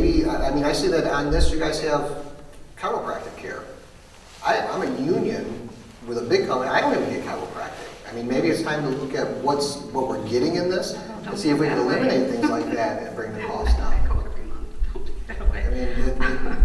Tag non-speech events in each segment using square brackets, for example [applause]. I mean, I see that on this, you guys have chiropractic care. I, I'm a union with a big company, I don't even get chiropractic. I mean, maybe it's time to look at what's, what we're getting in this, and see if we can eliminate things like that and bring the cost I down. go every month. Don't do it that I mean, way. it- it-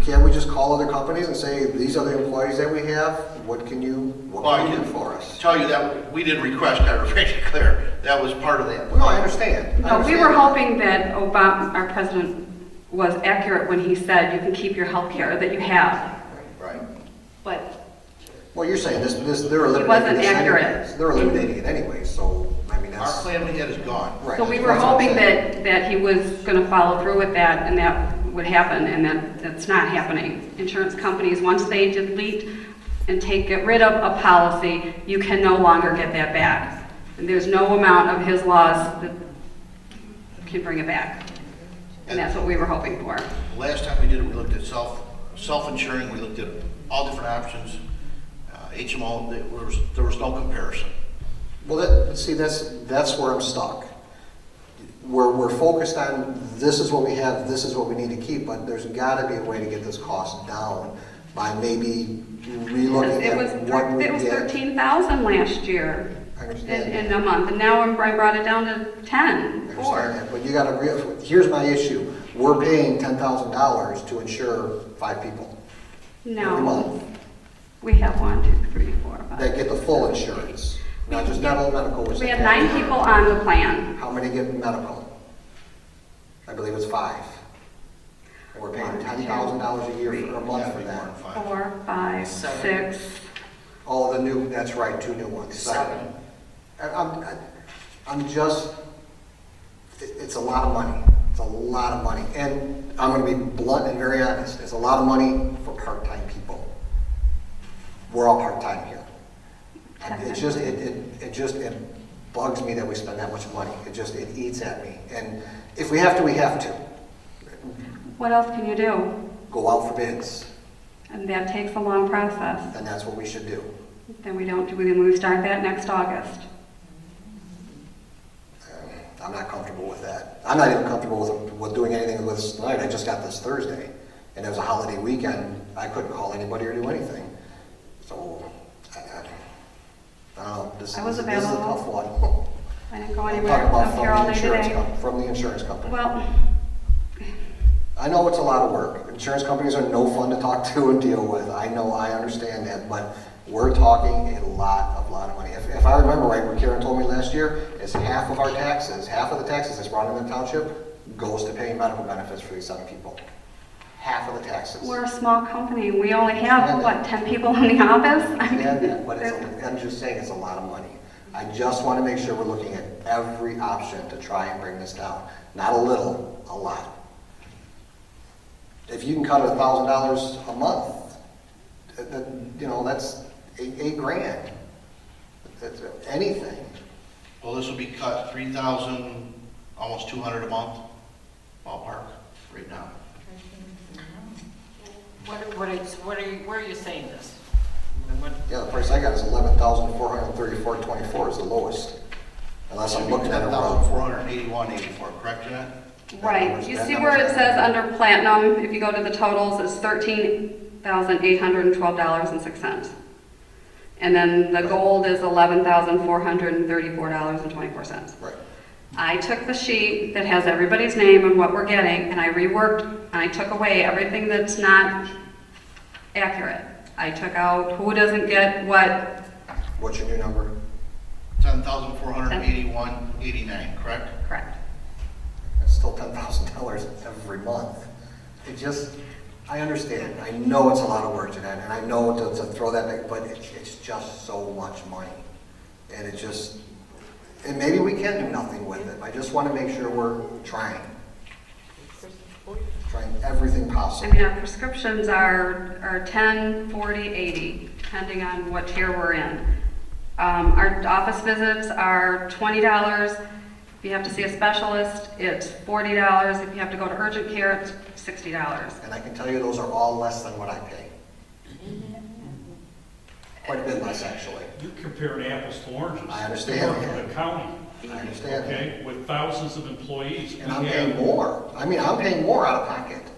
can't we just call other companies and say, these are the employees that we have, what can you, Well, what I can you do can- for us? Tell you that, we didn't request chiropractic care, that was part of that. No, I understand. I No, we were understand. hoping that Obama, our president, was accurate when he said you can keep your health care that you have, Right. but Well, you're saying this, this, they're It eliminating wasn't this anyway. accurate. They're eliminating it anyway, so, I mean, Our that's, plan we had is gone. right. So we that's were what I'm hoping saying. that, that he was going to follow through with that and that would happen, and that, that's not happening. Insurance companies, once they delete and take, get rid of a policy, you can no longer get that back. And there's no amount of his laws that can bring it back. And that's what we were hoping for. Last time we did it, we looked at self, self-insuring, we looked at all different options. Uh, HMO, there was, there was no comparison. Well, that, see, that's, that's where I'm stuck. We're, we're focused on, this is what we have, this is what we need to keep, but there's gotta be a way to get this cost down by maybe relooking It was, at what we it was did. thirteen thousand last year I in, understand. in a month, and now I'm- I brought it down to ten, I four. understand that, But you gotta, rea- here's my issue, we're paying ten thousand dollars to insure five people every No, month. we have one, two, three, four, that five. get the full insurance, not just dental, medical. which We they have can't. nine people on the plan. How many get medical? I believe it's five. And we're paying One, two, ten thousand dollars a year for a month for Yeah, that. we weren't fine. Four, five, Seven. six, All the new, that's right, two new ones, seven. Seven. And I'm, I- I'm just, it- it's a lot of money. It's a lot of money. And I'm gonna be blunt and very honest, it's a lot of money for part-time people. We're all part-time here. It just, it, it, it just, it bugs me that we spend that much money. It just, it eats at me. And if we have to, we have to. what else can you do? Go out for bids, And that takes a long process. and that's what we should do. Then we don't, do we, we start that next August. Um, I'm not comfortable with that. I'm not even comfortable with, with doing anything with this tonight. I just got this Thursday, and it was a holiday weekend. I couldn't call anybody or do anything. So, I, I, I don't know, this I was is, this is a available. tough one. I didn't go I'm [laughs] anywhere, talking about I'm from here the all day insurance today. com- From the insurance company. Well, I know it's a lot of work. Insurance companies are no fun to talk [laughs] to and deal with. I know, I understand that, but we're talking a lot, a lot of money. If, if I remember right, what Karen told me last year, is half of our taxes, half of the taxes that's brought in the township goes to paying medical benefits for these seven people. Half of the taxes. we're a small company, we only Yeah. have, what, ten people in the [laughs] office? I mean, understand [laughs] that, but it's, it- I'm just saying, it's a lot of money. I just want to make sure we're looking at every option to try and bring this down. Not a little, a lot. If you can cut a thousand dollars a month, that- that, you know, that's eight, eight grand. That's anything. Well, this will be cut three thousand, almost two hundred a month ballpark right now. What, are- what is, what are you, where are you saying this? What- Yeah, the price I got is eleven thousand four hundred thirty-four twenty-four is the lowest. Unless I'm looking at it Ten thousand wrong. four hundred eighty-one eighty-four, correct, Jeanette? Right, you see where it says under platinum, if you go to the totals, it's thirteen thousand eight hundred and twelve dollars and six cents. And then the gold is eleven thousand four hundred and thirty-four dollars and twenty-four cents. Right. I took the sheet that has everybody's name and what we're getting, and I reworked, and I took away everything that's not accurate. I took out who doesn't get what, What's your new number? Ten thousand four hundred eighty-one eighty-nine, correct? correct. It's still ten thousand dollars every month. It just, I understand, I know it's a lot of work to that, and I know to, to throw that, back, but it's, it's just so much money. And it just, and maybe we can do nothing with it, I just wanna make sure we're trying. Trying everything I possible. mean, our prescriptions are, are 10, 40, 80, depending on what tier we're in. Um, Our office visits are $20. If you have to see a specialist, it's $40. If you have to go to urgent care, it's $60. And I can tell you, those are all less than what I pay. Quite a bit less, actually. You're comparing apples to oranges. I understand You work that. for the county, I understand that. okay, with thousands of employees. And I'm We have- paying more. I mean, I'm paying more out of pocket.